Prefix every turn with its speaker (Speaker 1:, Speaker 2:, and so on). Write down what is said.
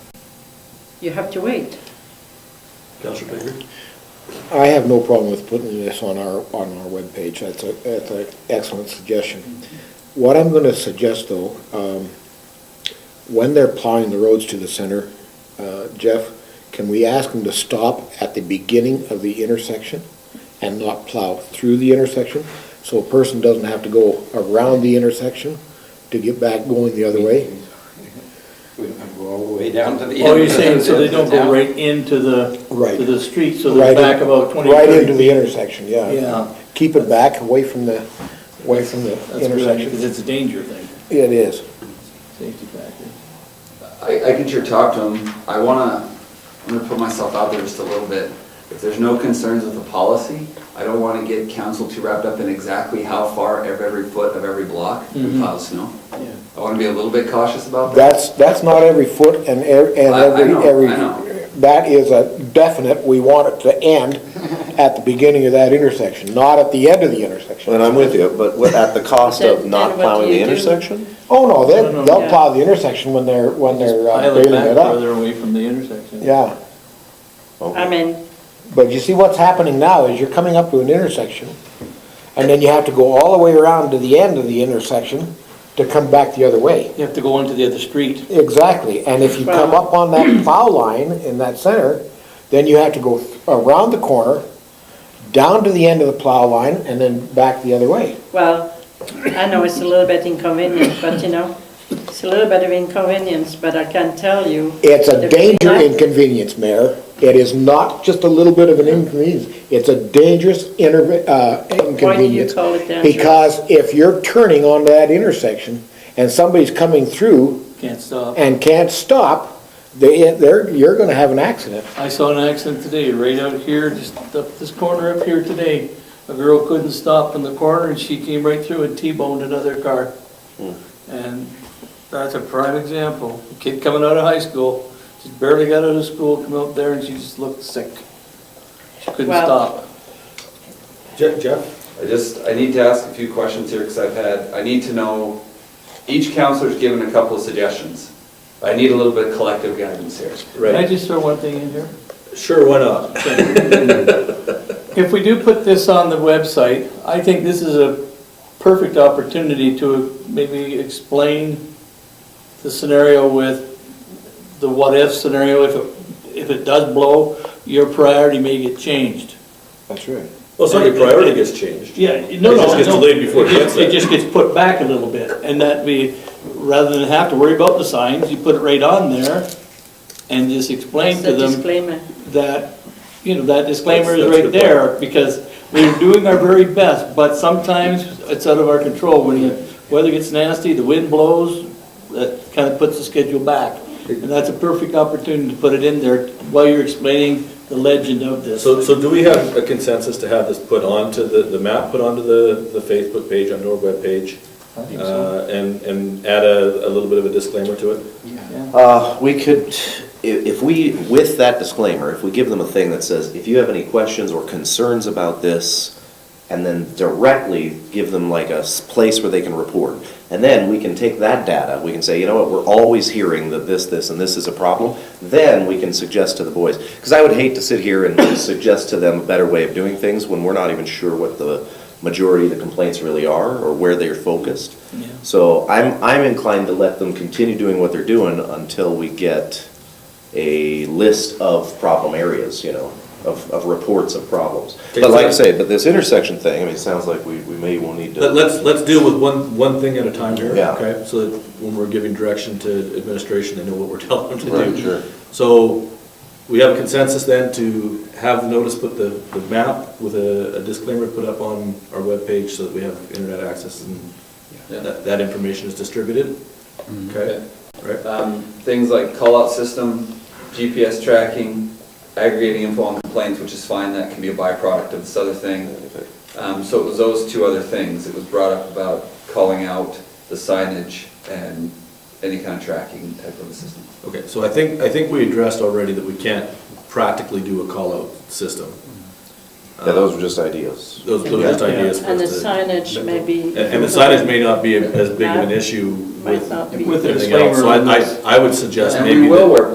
Speaker 1: you have to wait.
Speaker 2: Counselor Baker?
Speaker 3: I have no problem with putting this on our, on our webpage, that's a, that's an excellent suggestion. What I'm gonna suggest though, um, when they're plowing the roads to the center, uh, Jeff, can we ask them to stop at the beginning of the intersection and not plow through the intersection? So a person doesn't have to go around the intersection to get back going the other way?
Speaker 4: We don't go all the way down to the end.
Speaker 2: Oh, you're saying so they don't
Speaker 4: Down.
Speaker 2: go right into the,
Speaker 3: Right.
Speaker 2: to the street, so
Speaker 3: Right in-
Speaker 2: they're back about 20,
Speaker 3: Right into
Speaker 2: 30.
Speaker 3: the intersection, yeah.
Speaker 2: Yeah.
Speaker 3: Keep it back, away from the, away from the
Speaker 2: That's good, because
Speaker 3: intersection.
Speaker 2: it's a danger thing,
Speaker 3: It is.
Speaker 2: safety factor.
Speaker 4: I, I can sure talk to him. I wanna, I'm gonna put myself out there just a little bit. If there's no concerns with the policy, I don't wanna get council too wrapped up in exactly how far of every foot of every block we
Speaker 2: Mhm.
Speaker 4: plow snow.
Speaker 2: Yeah.
Speaker 4: I wanna be a little bit cautious about that.
Speaker 3: That's, that's not every foot and every, and
Speaker 4: I- I
Speaker 3: every,
Speaker 4: know, I
Speaker 3: every.
Speaker 4: know.
Speaker 3: That is a definite, we want it to end at the beginning of that intersection, not at the end of the intersection.
Speaker 5: And I'm with you, but what- at the cost of
Speaker 1: Then- then
Speaker 5: not
Speaker 1: what do
Speaker 5: plowing
Speaker 1: you
Speaker 5: the
Speaker 1: do?
Speaker 5: intersection?
Speaker 3: Oh, no,
Speaker 2: No, no,
Speaker 3: they'll,
Speaker 1: yeah.
Speaker 3: they'll plow the intersection when they're, when they're uh,
Speaker 2: Pile it
Speaker 3: bailing
Speaker 2: back
Speaker 3: it up.
Speaker 2: further away from the intersection.
Speaker 3: Yeah,
Speaker 1: I mean,
Speaker 3: but you see what's happening now is you're coming up to an intersection, and then you have to go all the way around to the end of the intersection to come back the other way.
Speaker 2: You have to go onto the other street.
Speaker 3: Exactly, and if you come up on that plow line in that center, then you have to go th- around the corner, down to the end of the plow line, and then back the other way.
Speaker 1: well, I know it's a little bit inconvenient, but you know, it's a little bit of inconvenience, but I can tell you.
Speaker 3: It's a
Speaker 1: the
Speaker 3: danger
Speaker 1: reason-
Speaker 3: inconvenience, Mayor. It is not just a little bit of an inconvenience, it's a dangerous inter, uh, inconvenience.
Speaker 1: call it dangerous?
Speaker 3: Because if you're turning onto that intersection, and somebody's coming through
Speaker 2: Can't stop.
Speaker 3: and can't stop, they, they're, you're gonna have an accident.
Speaker 2: I saw an accident today, right out here, just up this corner up here today. A girl couldn't stop in the corner and she came right through and T-boned another car. And that's a prime example. A Kid coming out of high school, just barely got out of school, come up there and she just looked sick. She couldn't
Speaker 1: Well-
Speaker 2: stop.
Speaker 5: Jeff?
Speaker 4: I just, I need to ask a few questions here because I've had, I need to know, each counselor's given a couple of suggestions. I need a little bit of collective guidance here.
Speaker 2: Can I
Speaker 5: Right,
Speaker 2: just throw one thing in here?
Speaker 5: sure, why not?
Speaker 2: If we do put this on the website, I think this is a perfect opportunity to maybe explain the scenario with, the what-if scenario, if it, if it does blow, your priority may get changed.
Speaker 3: That's right.
Speaker 5: Well, it's not your priority gets changed.
Speaker 2: Yeah, no,
Speaker 5: It
Speaker 2: no.
Speaker 5: just gets
Speaker 2: no.
Speaker 5: delayed before it
Speaker 2: just-
Speaker 5: gets there.
Speaker 2: It just gets put back a little bit, and that we, rather than have to worry about the signs, you put it right on there and just explain
Speaker 1: It's
Speaker 2: to
Speaker 1: a
Speaker 2: them
Speaker 1: disclaimer.
Speaker 2: that, you know, that disclaimer is
Speaker 5: That's- that's
Speaker 2: right
Speaker 5: a good
Speaker 2: there, because we're doing our very best, but sometimes it's out of our control. When the weather gets nasty, the wind blows, that kind of puts the schedule back. And that's a perfect opportunity to put it in there while you're explaining the legend of this.
Speaker 6: So, so do we have a consensus to have this put onto the, the map, put onto the, the Facebook page, onto our webpage?
Speaker 2: I think so.
Speaker 6: uh, And, and add a, a little bit of a disclaimer to it?
Speaker 2: Yeah.
Speaker 5: Uh, we could, i- if we, with that disclaimer, if we give them a thing that says, if you have any questions or concerns about this, and then directly give them like a s- place where they can report. And then we can take that data, we can say, you know what, we're always hearing that this, this, and this is a problem. Then we can suggest to the boys, because I would hate to sit here and suggest to them a better way of doing things when we're not even sure what the majority of the complaints really are, or where they are focused.
Speaker 2: Yeah.
Speaker 5: So I'm, I'm inclined to let them continue doing what they're doing until we get a list of problem areas, you know, of, of reports of problems. But like I say, but this intersection thing, I mean, it sounds like we, we may will need to.
Speaker 6: Let- Let's, let's deal with one, one thing at a time here,
Speaker 5: Yeah.
Speaker 6: okay? So that when we're giving direction to administration, they know what we're telling them to
Speaker 5: Right,
Speaker 6: do.
Speaker 5: sure.
Speaker 6: So we have a consensus then to have the notice, put the, the map with a a disclaimer put up on our webpage so that we have internet access and
Speaker 4: Yeah.
Speaker 6: that, that information is distributed, okay? Right?
Speaker 4: Um, Things like call-out system, GPS tracking, aggregating info on complaints, which is fine, that can be a byproduct of this other thing. Um, So it was those two other things. It was brought up about calling out the signage and any kind of tracking type of a system.
Speaker 6: Okay, so I think, I think we addressed already that we can't practically do a call-out system.
Speaker 5: Yeah, those were just ideas.
Speaker 6: Those, those are just
Speaker 5: Yeah.
Speaker 6: ideas. for
Speaker 1: And the
Speaker 6: us to-
Speaker 1: signage may be.
Speaker 6: And and the signage may not be as big of an issue
Speaker 1: Might
Speaker 6: with
Speaker 1: not be.
Speaker 2: With the
Speaker 6: everything else. So
Speaker 2: disclaimer.
Speaker 6: I, I- I would suggest
Speaker 4: And
Speaker 6: maybe.
Speaker 4: we will
Speaker 6: that-
Speaker 4: work